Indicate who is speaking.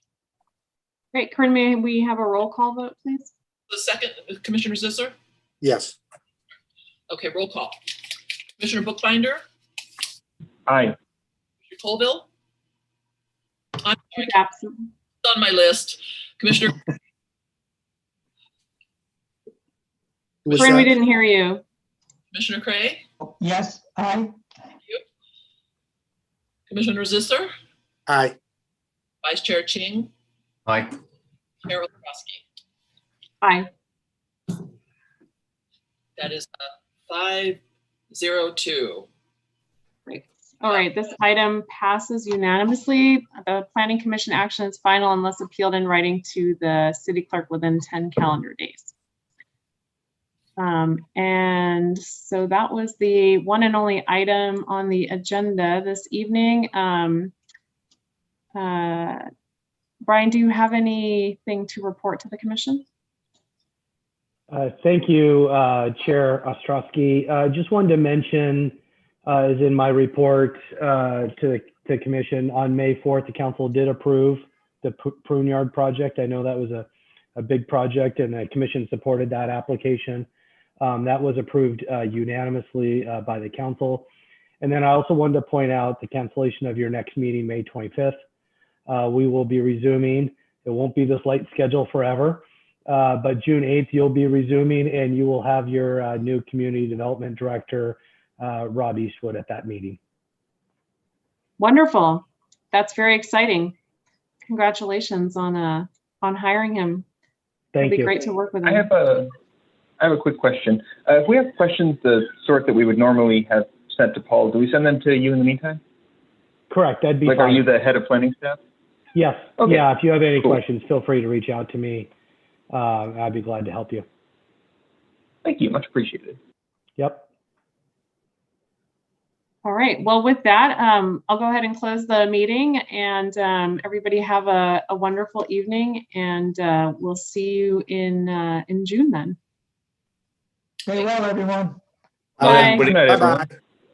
Speaker 1: Great, Corinne, may we have a roll call vote, please?
Speaker 2: The second, Commissioner Zisser?
Speaker 3: Yes.
Speaker 2: Okay, roll call. Commissioner Bookbinder,
Speaker 4: Aye.
Speaker 2: Commissioner Colville? I'm sorry,
Speaker 1: Who's absent?
Speaker 2: it's on my list. Commissioner,
Speaker 3: Who was uh,
Speaker 1: Corinne, we
Speaker 3: that?
Speaker 1: didn't hear you.
Speaker 2: Commissioner Cray,
Speaker 4: Yes, aye.
Speaker 2: Commissioner Zisser,
Speaker 3: Aye.
Speaker 2: Vice Chair Ching,
Speaker 5: Aye.
Speaker 2: Chair Ostrowski.
Speaker 1: Aye.
Speaker 2: That is uh, five zero two.
Speaker 1: Great. All right, this item passes unanimously. The planning commission action is final unless appealed in writing to the city clerk within ten calendar days. Um, and so that was the one and only item on the agenda this evening. Um, uh, Brian, do you have anything to report to the commission?
Speaker 6: Uh, Thank you, uh, Chair Ostrowski. Uh, Just wanted to mention, uh, as in my report uh, to the to the commission, on May 4th, the council did approve the pr- prune yard project. I know that was a, a big project, and the commission supported that application. Um, That was approved uh, unanimously uh, by the council. And then I also wanted to point out the cancellation of your next meeting, May 25th. Uh, We will be resuming. It won't be this light schedule forever. Uh, but June 8th, you'll be resuming and you will have your uh, new community development director, uh, Rob Eastwood, at that meeting.
Speaker 1: Wonderful. That's very exciting. Congratulations on, uh, on hiring him.
Speaker 6: Thank
Speaker 1: It'll be
Speaker 6: you.
Speaker 1: great to work with
Speaker 4: I
Speaker 1: him.
Speaker 4: have a, I have a quick question. Uh, if we have questions the sort that we would normally have sent to Paul, do we send them to you in the meantime?
Speaker 6: Correct. That'd be
Speaker 4: Like, are
Speaker 6: fine.
Speaker 4: you the head of planning staff?
Speaker 6: yes.
Speaker 4: Okay.
Speaker 6: Yeah. If you have any
Speaker 4: Cool.
Speaker 6: questions, feel free to reach out to me. Uh, I'd be glad to help you.
Speaker 4: Thank you, much appreciated.
Speaker 6: Yep.
Speaker 1: All right. Well, with that, um, I'll go ahead and close the meeting and, um, everybody have a, a wonderful evening and, uh, we'll see you in, uh, in June then.
Speaker 7: Stay well, everyone.
Speaker 3: Aye.
Speaker 1: Bye.
Speaker 4: Good night, everyone.
Speaker 3: Bye-bye.